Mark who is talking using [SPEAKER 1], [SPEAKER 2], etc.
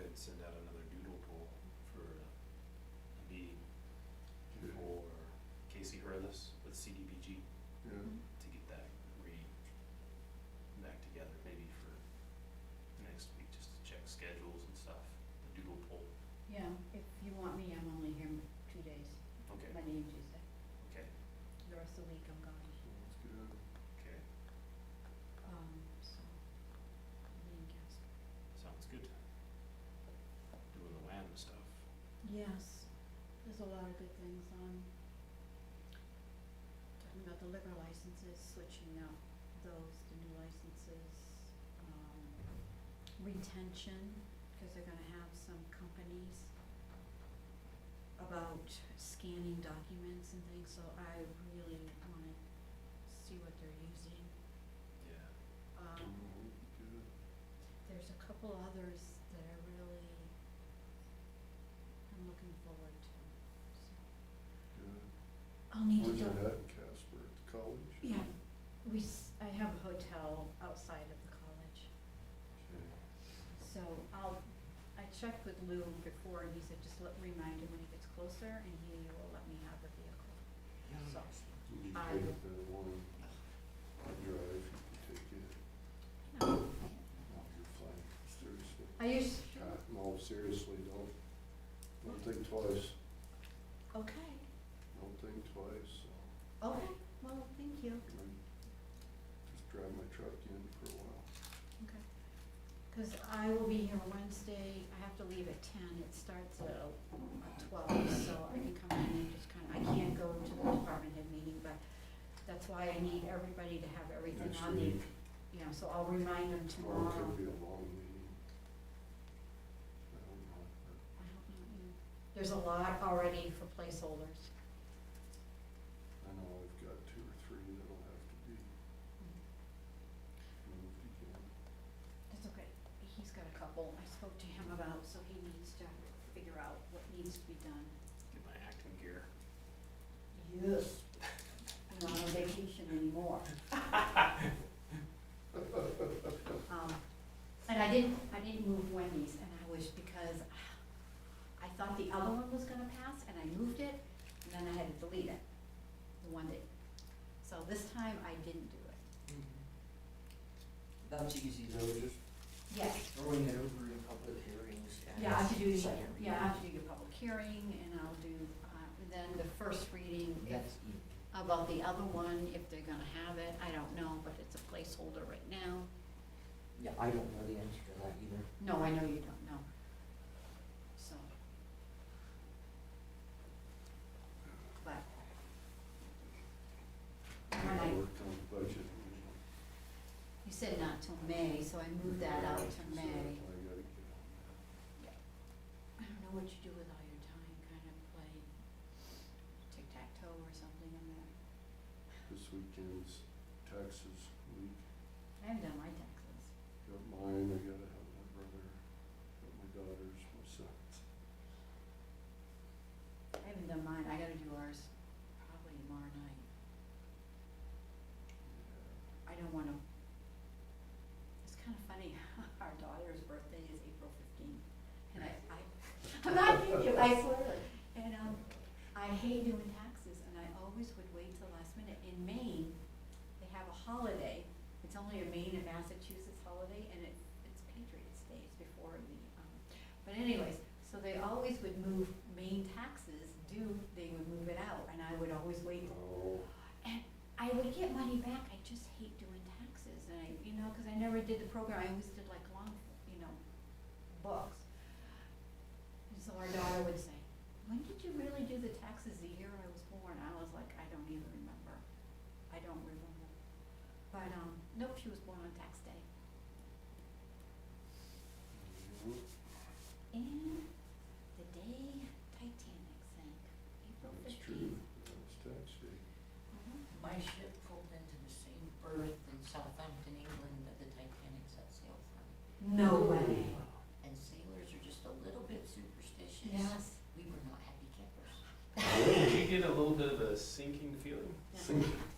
[SPEAKER 1] could send out another doodle poll for uh, Habib or Casey Hurlis with CDBG
[SPEAKER 2] Yeah,
[SPEAKER 1] to get that re, back together maybe for next week, just to check schedules and stuff, the doodle poll.
[SPEAKER 3] Yeah, if you want me, I'm only here m- two days,
[SPEAKER 1] Okay,
[SPEAKER 3] Monday and Tuesday.
[SPEAKER 1] okay,
[SPEAKER 3] The rest of the week I'm gone,
[SPEAKER 2] so let's get out.
[SPEAKER 1] okay,
[SPEAKER 3] um, so, I'm being cast.
[SPEAKER 1] sounds good. Doing the WAM stuff.
[SPEAKER 3] Yes, there's a lot of good things on. Talking about the liquor licenses, switching out those to new licenses, um, retention, cause they're gonna have some companies about scanning documents and things, so I really wanna see what they're using.
[SPEAKER 1] Yeah.
[SPEAKER 3] Um, there's a couple others that I really am looking forward to, so.
[SPEAKER 2] Yeah,
[SPEAKER 3] I'll need
[SPEAKER 2] yeah.
[SPEAKER 3] to
[SPEAKER 2] Where's
[SPEAKER 3] go,
[SPEAKER 2] that at in Casper, at the college?
[SPEAKER 3] yeah, we, s- I have a hotel outside of the college,
[SPEAKER 2] Okay.
[SPEAKER 3] so I'll, I checked with Lou before, and he said, just let, remind him when he gets closer, and he will let me have the vehicle, so.
[SPEAKER 2] You can
[SPEAKER 3] I-
[SPEAKER 2] take it there one, I drive, you can take it, off
[SPEAKER 3] No,
[SPEAKER 2] your flank, seriously.
[SPEAKER 3] I used,
[SPEAKER 2] God, no, seriously, don't, don't think twice,
[SPEAKER 3] okay,
[SPEAKER 2] don't think twice, so,
[SPEAKER 3] okay, well, thank you,
[SPEAKER 2] I just drive my truck in for a while.
[SPEAKER 3] okay. Cause I will be here Wednesday, I have to leave at ten, it starts at twelve, so I can come in and just kinda, I can't go to the department head meeting, but that's why I need everybody to have everything
[SPEAKER 2] Next
[SPEAKER 3] on the
[SPEAKER 2] week,
[SPEAKER 3] you know, so I'll remind them
[SPEAKER 2] tomorrow
[SPEAKER 3] tomorrow.
[SPEAKER 2] could be a long meeting. I don't know, but
[SPEAKER 3] I don't know, yeah. There's a lot already for placeholders.
[SPEAKER 2] I know I've got two or three that'll have to be moved again.
[SPEAKER 3] That's okay, he's got a couple I spoke to him about, so he needs to figure out what needs to be done.
[SPEAKER 1] Get my acting gear.
[SPEAKER 3] Yes. I'm not on vacation anymore. Um, and I didn't, I didn't move Wendy's, and I wish, because I thought the other one was gonna pass, and I moved it, and then I had to delete it, the one that, so this time I didn't do it.
[SPEAKER 4] That's easy though, just
[SPEAKER 3] Yes,
[SPEAKER 4] throwing it over in public hearings and.
[SPEAKER 3] yeah, I have to do, your-
[SPEAKER 4] second
[SPEAKER 3] yeah, I have to
[SPEAKER 4] reading.
[SPEAKER 3] do your public hearing, and I'll do, uh, then the first reading, if,
[SPEAKER 4] That's easy.
[SPEAKER 3] about the other one, if they're gonna have it, I don't know, but it's a placeholder right now.
[SPEAKER 4] Yeah, I don't know the answer to that either.
[SPEAKER 3] No, I know you don't know. So. But. When
[SPEAKER 2] I
[SPEAKER 3] I-
[SPEAKER 2] worked on the budget. and-
[SPEAKER 3] you said not till May, so I moved that out to
[SPEAKER 2] So
[SPEAKER 3] May.
[SPEAKER 2] I gotta get on that.
[SPEAKER 3] I don't know what you do with all your time, kind of play tic-tac-toe or something in there.
[SPEAKER 2] This weekend's taxes week,
[SPEAKER 3] I haven't done my taxes.
[SPEAKER 2] got mine, I gotta have my brother, got my daughters, my sons.
[SPEAKER 3] I haven't done mine, I gotta do ours probably tomorrow night. I don't wanna, it's kinda funny, our daughter's birthday is April fifteenth, and I, I, I'm not kidding you, I swear. And, um, I hate doing taxes, and I always would wait till the last minute. In Maine, they have a holiday, it's only a Maine and Massachusetts holiday, and it, it's Patriots Day, it's before the, um, but anyways, so they always would move Maine taxes due, they would move it out, and I would always wait
[SPEAKER 2] Oh,
[SPEAKER 3] and I would get money back, I just hate doing taxes, and I, you know, cause I never did the program, I always did like long, you know, books. And so our daughter would say, when did you really do the taxes the year I was born? I was like, I don't even remember, I don't remember. But, um, nope, she was born on tax day,
[SPEAKER 2] you
[SPEAKER 3] and the day Titanic sank, April
[SPEAKER 2] know, that's true,
[SPEAKER 3] fifteenth. Mm-hmm.
[SPEAKER 2] that's tax day.
[SPEAKER 5] My ship pulled into the same berth in Southampton, England that the Titanic set sail from.
[SPEAKER 3] No way.
[SPEAKER 5] And sailors are just a little bit superstitious.
[SPEAKER 3] Yes.
[SPEAKER 5] We were not happy campers.
[SPEAKER 1] Did you get a little bit of a sinking feeling?
[SPEAKER 3] Yeah.
[SPEAKER 2] Sink-
[SPEAKER 3] um,